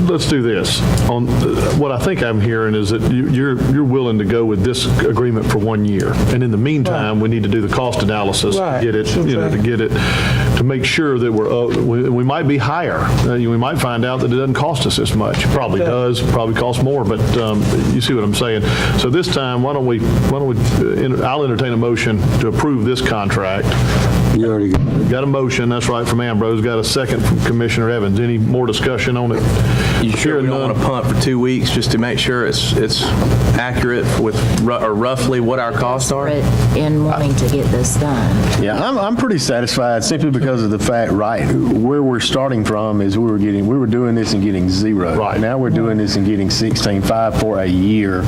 let's do this. On, what I think I'm hearing is that you- you're, you're willing to go with this agreement for one year. And in the meantime, we need to do the cost analysis, to Right. get it, you know, to Okay. get it, to make sure that we're, uh, we we might be higher. Uh, you- We might find out that it doesn't cost us this much. Probably Okay. does, probably costs more, but um, you see what I'm saying? So this time, why don't we, why don't we, uh, enter- I'll entertain a motion to approve this contract You already got it. Got a motion, that's right, from Ambrose, got a second from Commissioner Evans. Any more discussion on it? You sure we don't Hearing want to none. punt for two weeks just to make sure it's, it's accurate with, ru- or roughly what our costs are? desperate in wanting to get this done. Yeah, I'm, I'm pretty satisfied simply because of the fact, right, where we're starting from is we were getting, we were doing this and getting zero. Right. Now we're doing this and getting 16.5 for a year.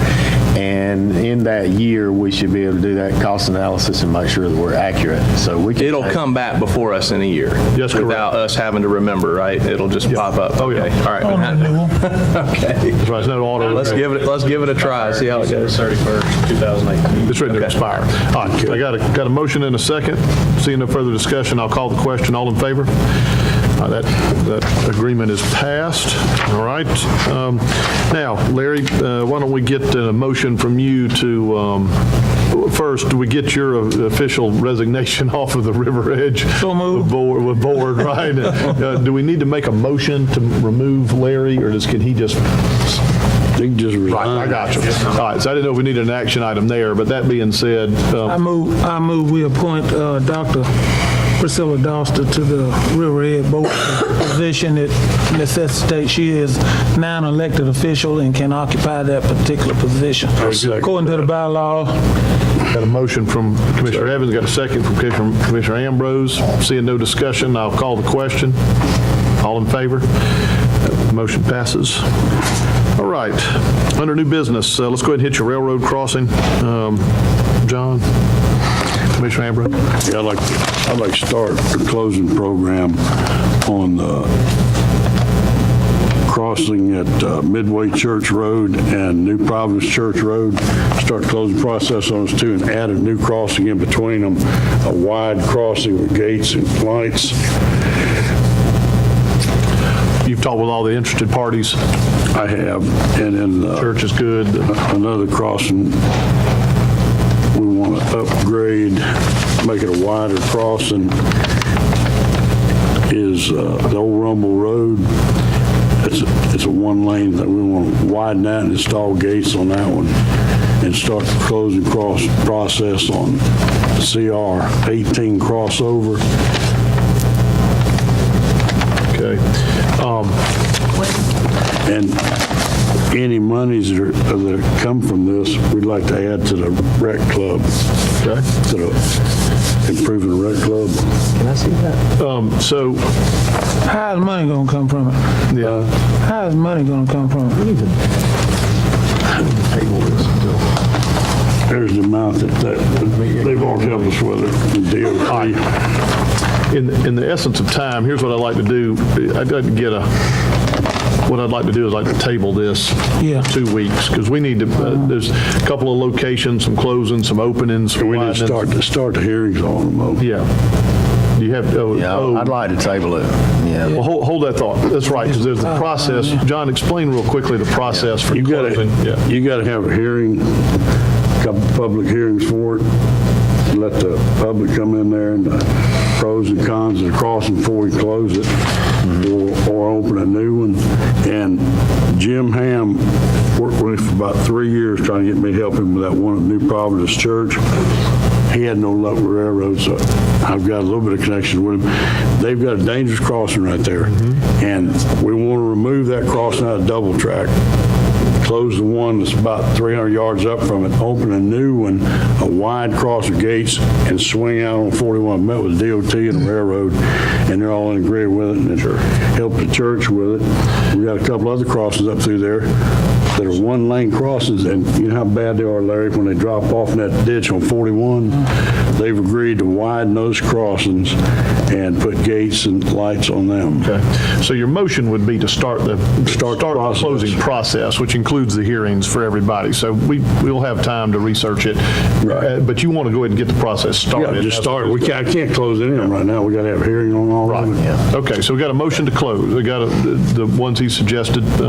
And in that year, we should be able to do that cost analysis and make sure that we're accurate. So we can. It'll come back before us in a year. Yes, correct. Without us having to remember, right? It'll just pop up. Oh, yeah. Okay, All right. Okay. That's right, it's not auto. Let's give it, let's give it a try, see how it goes. 31st, 2018. It's ready to expire. All right, I got a, got a motion and a second. Seeing no further discussion, I'll call the question. All in favor? All right, That, that agreement is passed, all right. Um, Now, Larry, uh, why don't we get a motion from you to, um, first, do we get your uh, official resignation off of the River Edge? So moved. Board, with board, right? Uh, Do we need to make a motion to remove Larry, or does, can he just They can just Right, I resign. got you. All right, so I didn't know if we needed an action item there, but that being said, I um, move, I move we appoint uh, Dr. Priscilla Doster to the River Ed Board position that necessitates she is non-elected official and can occupy that particular position. second According to the bylaw, got a motion from Commissioner Evans, got a second from Commissioner Commissioner Ambrose. Seeing no discussion, I'll call the question. All in favor? Uh, Motion passes. All right, under new business, uh, let's go ahead and hit your railroad crossing. Um, John, Commissioner Ambrose? Yeah, I'd like, I'd like to start the closing program on the crossing at uh, Midway Church Road and New Providence Church Road. Start the closing process on those two and add a new crossing in between them, a wide crossing with gates and lights. You've talked with all the interested parties. I have, and then. uh, Church is good. another crossing, we want to upgrade, make it a wider crossing, is uh, the old Rumble Road. It's, it's a one lane that we want to widen that and install gates on that one and start the closing cross process on CR 18 crossover. Okay. Um, And any monies that are- that come from this, we'd like to add to the rec club. Okay. To the improving the rec club. um, So, how's money gonna come from it? yeah. How's money gonna come from it? There's the amount that that- they've all helped us with it. the DOT. In, in the essence of time, here's what I'd like to do. I'd like to get a, what I'd like to do is like to table this. Yeah. Two weeks, because we need to, uh, there's a couple of locations, some closings, some openings. some We need to widenings. start, start the hearings on them. though. Yeah. Do you have, oh, Yeah, oh, I'd like to table it. well, Yeah. hold, hold that thought. That's right, because there's the process. John, explain real quickly the process for You gotta, closing. Yeah. you gotta have a hearing, couple public hearings for it, let the public come in there and the pros and cons of the crossing before we close it, or, or open a new one. And Jim Ham worked with me for about three years trying to get me helping with that one at New Providence Church. He had no luck with railroads, so I've got a little bit of connection with him. They've got a dangerous crossing right there, and we want to remove that crossing out of double track close the one that's about 300 yards up from it, open a new one, a wide cross of gates, and swing out on 41. Met with DOT and the railroad, and they're all in agreement with it, and it's helped the church with it. We got a couple other crossings up through there that are one-lane crossings, and you know how bad they are, Larry, when they drop off in that ditch on 41? They've agreed to widen those crossings and put gates and lights on them. Okay. So your motion would be to start the, start Start the the process. closing process, which includes the hearings for everybody. So we, we'll have time to research it. Right. Uh, But you want to go ahead and get the process started. Yeah, just start, we can't, I can't close any of them right now, we gotta have a hearing on all of them. Okay, so we got a motion to close. We got a- the the ones he suggested,